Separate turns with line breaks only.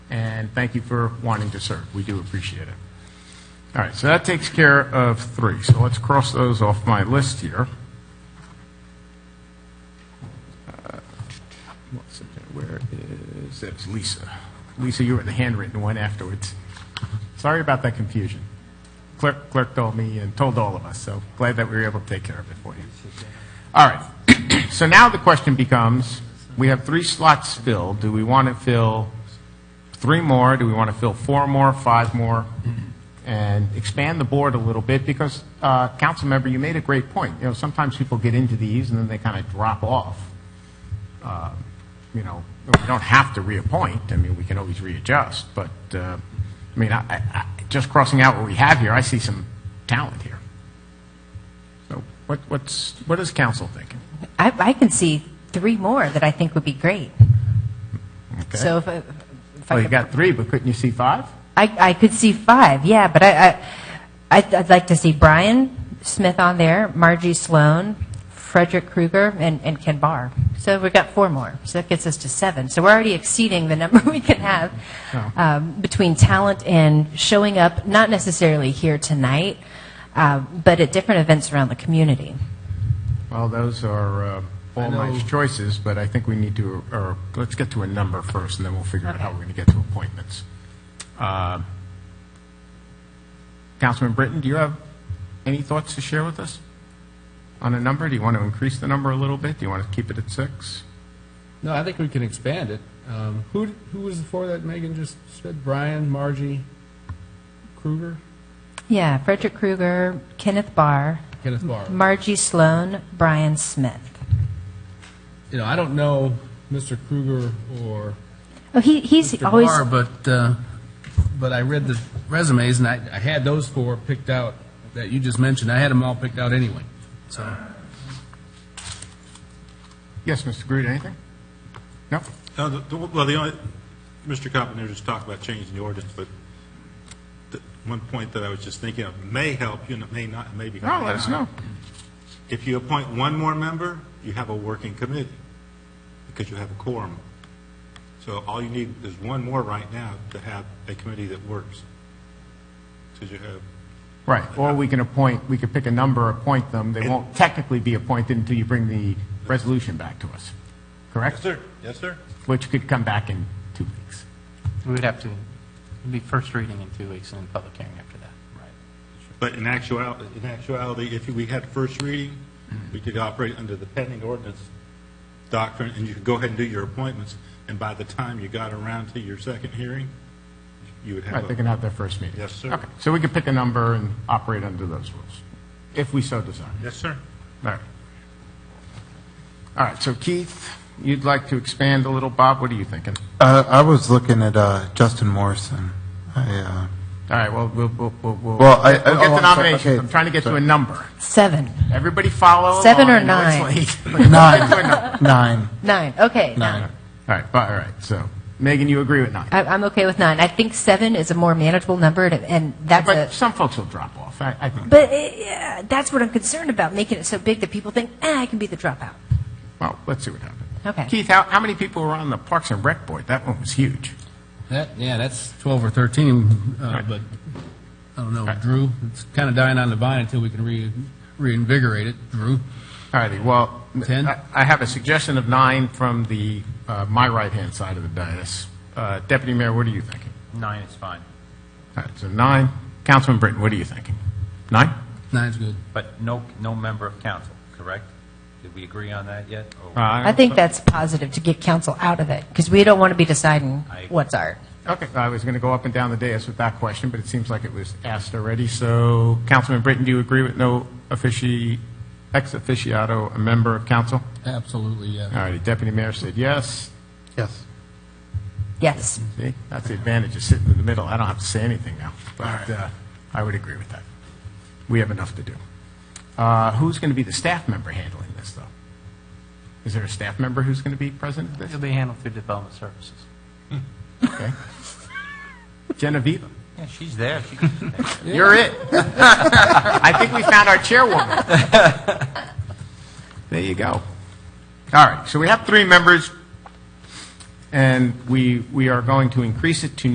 and thank you for wanting to serve. We do appreciate it. All right, so that takes care of three. So let's cross those off my list here. Uh, what's it there? Where is, that's Lisa. Lisa, you were the handwritten one afterwards. Sorry about that confusion. Clerk, clerk told me and told all of us, so glad that we were able to take care of it for you. All right, so now the question becomes, we have three slots filled. Do we want to fill three more? Do we want to fill four more, five more? And expand the board a little bit because, uh, council member, you made a great point. You know, sometimes people get into these and then they kind of drop off. Uh, You know, we don't have to reappoint. I mean, we can always readjust, but, uh, I mean, I, I- I, just crossing out what we have here, I see some talent here. So what, what's, what is council thinking?
I, I can see three more that I think would be great.
Okay.
So if, I- if I
Well, Oh, you
could-
got three, but couldn't you see five?
I, I could see five, yeah, but I, I, I'd, I'd like to see Brian Smith on there, Margie Sloan, Frederick Krueger, and, and Ken Barr. So we've got four more, so that gets us to seven. So we're already exceeding the number we can have
Oh.
um, between talent and showing up, not necessarily here tonight, uh, but at different events around the community.
Well, those are uh, all nice choices, but I think we need to, or let's get to a number first, and then we'll figure out how we're going to get to appointments. Uh, Councilman Britton, do you have any thoughts to share with us on a number? Do you want to increase the number a little bit? Do you want to keep it at six?
No, I think we can expand it. Um, who who was the four that Megan just said? Brian, Margie, Kruger,
Yeah, Frederick Krueger, Kenneth Barr,
Kenneth Barr.
Margie Sloan, Brian Smith.
you know, I don't know Mr. Kruger or
Oh, he, he's
Mr.
always.
Barr, but uh, but I read the resumes and I, I had those four picked out that you just mentioned. I had them all picked out anyway. So
Yes, Mr. Groot, anything? No?
No, the- the- Well, the only, Mr. Carpenter just talked about changing the ordinance, but the one point that I was just thinking of may help you, and it may not, maybe.
No, let us know.
If you appoint one more member, you have a working committee, because you have a quorum. So all you need is one more right now to have a committee that works. Because you have,
Right, or we can appoint, we could pick a number, appoint them. They won't technically be appointed until you bring the resolution back to us, correct?
yes, sir, yes, sir?
which could come back in two weeks.
We would have to, it'd be first reading in two weeks and then public hearing after that.
But in actuality, in actuality, if we had first reading, we could operate under the pending ordinance doctrine, and you could go ahead and do your appointments, and by the time you got around to your second hearing, you would
Right,
have
they can
a...
have their first meeting.
Yes, sir.
Okay, so we could pick a number and operate under those rules, if we so desire.
Yes, sir.
All right. All right, so Keith, you'd like to expand a little. Bob, what are you thinking?
Uh, I was looking at uh, Justin Morrison. I, uh,
All right, well, we'll, we'll, we'll. we'll-
Well, I- I-
We'll
oh,
get
I'm
the
sorry,
nominations.
okay.
I'm trying to get to a number.
Seven.
Everybody follow along.
Seven or
I know it's
nine?
late.
uh, nine, nine,
Nine. Okay.
nine.
All right, bu- all right, so, Megan, you agree with nine?
I, I'm okay with nine. I think seven is a more manageable number, and, and that's
But
a.
some folks will drop off, I, I think.
But it, yeah, that's what I'm concerned about, making it so big that people think, ah, I can be the dropout.
Well, let's see what happens.
Okay.
Keith, how, how many people were on the Parks and Rec Board? That one was huge.
that yeah, that's twelve or thirteen. Uh, but I don't know, Drew. It's kind of dying on the vine until we can re- reinvigorate it, Drew.
All righty, well,
Ten?
I I have a suggestion of nine from the, uh, my right-hand side of the dais. Uh, Deputy Mayor, what are you thinking?
Nine is fine,
All right, so nine. Councilman Britton, what are you thinking? Nine?
Nine's good.
but no, no member of council, correct? Did we agree on that yet? Oh. Or-
I think that's positive to get council out of it, because we don't want to be deciding
I-
what's art.
Okay, I was going to go up and down the dais with that question, but it seems like it was asked already. So, Councilman Britton, do you agree with no offici, ex officiato, a member of council?
Absolutely,
All
yeah.
righty, Deputy Mayor said yes.
Yes.
Yes.
See, that's the advantage of sitting in the middle. I don't have to say anything now, but uh, I would agree with that. We have enough to do. Uh, Who's going to be the staff member handling this, though? Is there a staff member who's going to be present at
It'll
this?
be handled through development services.
Okay. Genevieve,
Yeah, she's there. She-
you're it. I think we found our chairwoman. There you go. All right, so we have three members. and we, we are going to increase it to